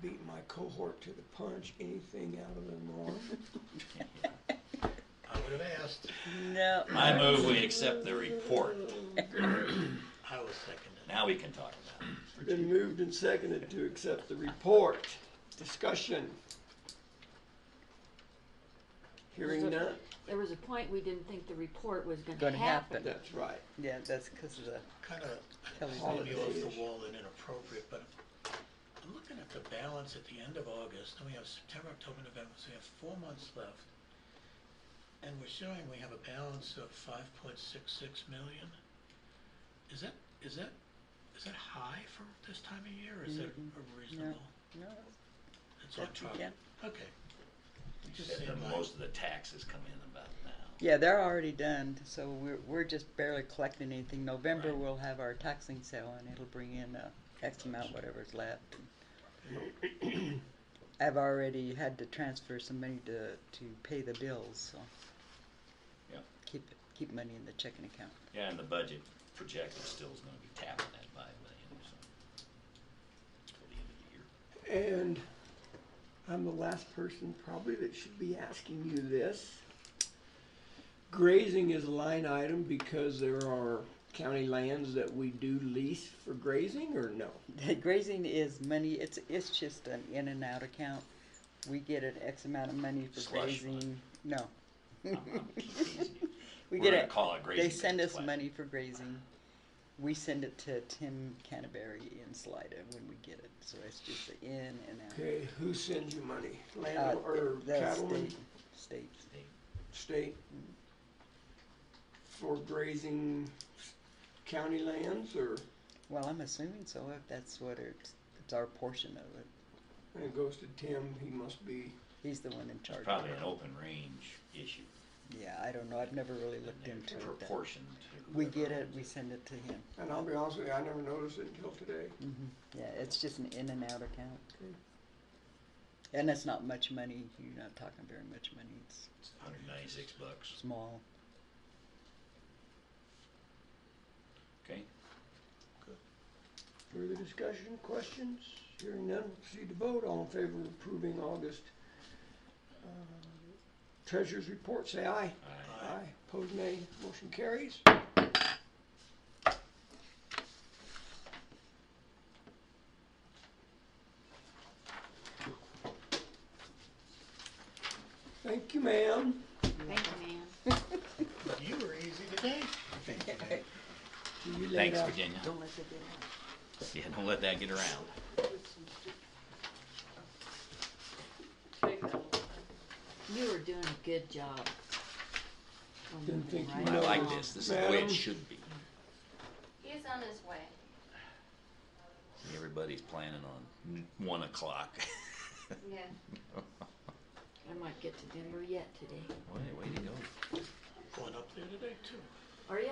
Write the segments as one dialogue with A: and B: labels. A: beat my cohort to the punch, anything out of the norm?
B: I would have asked.
C: No.
D: I move we accept the report.
B: I was seconded.
D: Now we can talk about it.
A: Been moved and seconded to accept the report. Discussion. Hearing none,
E: There was a point we didn't think the report was gonna
C: Gonna
E: happen.
C: happen.
A: that's right.
C: Yeah, that's because of the
B: Kind of,
C: television.
B: maybe off the wall and inappropriate, but I'm looking at the balance at the end of August, and we have September, October, November, so we have four months left. And we're showing we have a balance of five point six six million. Is that, is that, is that high for this time of year, or is that reasonable?
C: Mm-hmm. No,
B: It's on
C: That's-
B: target.
C: yeah.
B: Okay. It Just
D: And
B: seemed
D: then
B: like-
D: Most of the taxes come in about now.
C: Yeah, they're already done, so we're, we're just barely collecting anything. November, we'll have our taxing sale and it'll bring in uh, X amount, whatever's left. I've already had to transfer some money to, to pay the bills, so.
D: Yeah.
C: Keep, keep money in the checking account.
D: Yeah, and the budget projected still is gonna be tapping that five million, so. Till the end of the year.
A: And I'm the last person probably that should be asking you this. Grazing is a line item because there are county lands that we do lease for grazing or no?
C: The grazing is money, it's, it's just an in and out account. We get an X amount of money for
D: Slush fund.
C: grazing. No.
D: I'm- I'm teasing you.
C: We
D: We're
C: get
D: gonna
C: it.
D: call it
C: They
D: grazing
C: send
D: tax
C: us
D: flat.
C: money for grazing. We send it to Tim Canterbury in Slida when we get it, so it's just the in and out.
A: Okay, who sends you money?
C: Uh,
A: Land or
C: the
A: cattlemen,
C: state, state.
A: state? For grazing s- county lands or,
C: Well, I'm assuming so, if that's what it's, it's our portion of it.
A: and it goes to Tim, he must be,
C: He's the one in charge.
D: It's
C: of
D: probably
C: it.
D: an open range issue.
C: Yeah, I don't know, I've never really
D: and
C: looked
D: they're
C: into it. that-
D: Proportioned to.
C: We
D: whoever
C: get it,
D: owns
C: we send it to him.
A: and I'll be honest with you, I never noticed it until today.
C: Mhm. Yeah, it's just an in and out account. And it's not much money, you're not talking very much money, it's
D: It's Hundred ninety-six bucks,
C: small.
D: okay?
A: Further discussion, questions? Hearing none, we'll proceed to vote. All in favor of approving August uh, Treasurer's Report, say aye.
D: Aye.
A: Aye. Opposed, nay. Motion carries. Thank you, ma'am.
E: Thank you, man.
B: You were easy today. Thank you. Dave.
A: You laid
D: Thanks,
A: out-
D: Virginia.
C: Don't let it get out.
D: Yeah, don't let that get around.
E: You were doing a good job. on
A: Didn't
E: moving
A: think you
E: right
D: I like
E: along.
D: this, this is the way
A: Madam?
D: it should be.
F: He's on his way.
D: Everybody's planning on one o'clock.
F: Yeah.
E: I might get to Denver yet today.
D: Way, way to go.
B: Going up there today too.
E: Are ya?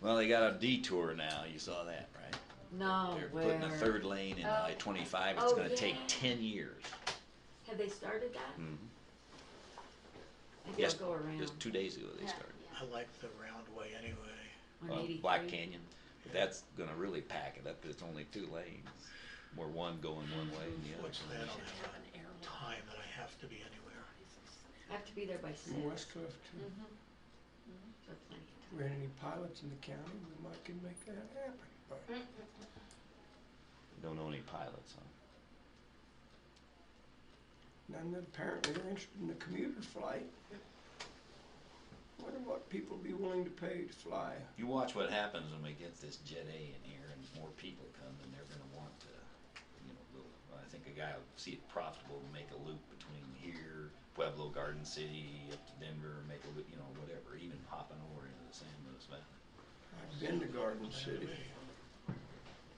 D: Well, they got a detour now, you saw that, right?
E: No,
D: They're
E: where?
D: putting a third lane in
F: Oh.
D: I twenty-five, it's
E: Oh,
D: gonna
E: yeah.
D: take ten years.
E: Have they started that?
D: Mhm.
E: Maybe I'll
D: Yes,
E: go around
D: just two days ago they
F: Yeah,
D: started.
F: yeah.
B: I like the round way anyway.
E: on
D: Uh,
E: 83.
D: Black Canyon, but that's gonna really pack it up, 'cause it's only two lanes, where one going one way and the other
B: Fortunately, I
D: going
B: don't
D: the other.
B: have a time that I have to be anywhere.
E: I have to be there by six.
A: In West Cliff, too.
E: So plenty of time.
A: If we had any pilots in the county, we might can make that happen. But
F: Mm-hmm.
D: Don't know any pilots, huh?
A: None that apparently are interested in the commuter flight. Wonder what people be willing to pay to fly.
D: You watch what happens when we get this Jet A in here and more people come and they're gonna want to, you know, go. I think a guy will see it profitable to make a loop between here, Pueblo, Garden City, up to Denver, make a loop, you know, whatever, even hopping over into the San Luis Valley.
A: I've been to Garden City.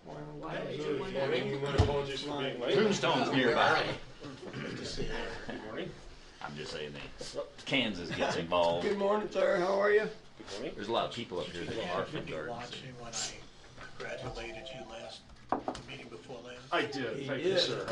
A: Why don't
E: Why
A: we-
E: would you want that?
G: Morning, my apologies for being late.
D: Tombstone's nearby.
B: Good to see you.
G: Good morning.
D: I'm just saying that Kansas gets involved.
A: Good morning, sir. How are you?
G: Good morning.
D: There's a lot of people up here that are
B: You
D: from
B: be
D: Garden City.
B: watching when I congratulated you last meeting before last.
G: I did,
A: He
G: thank
A: did.
G: you, sir.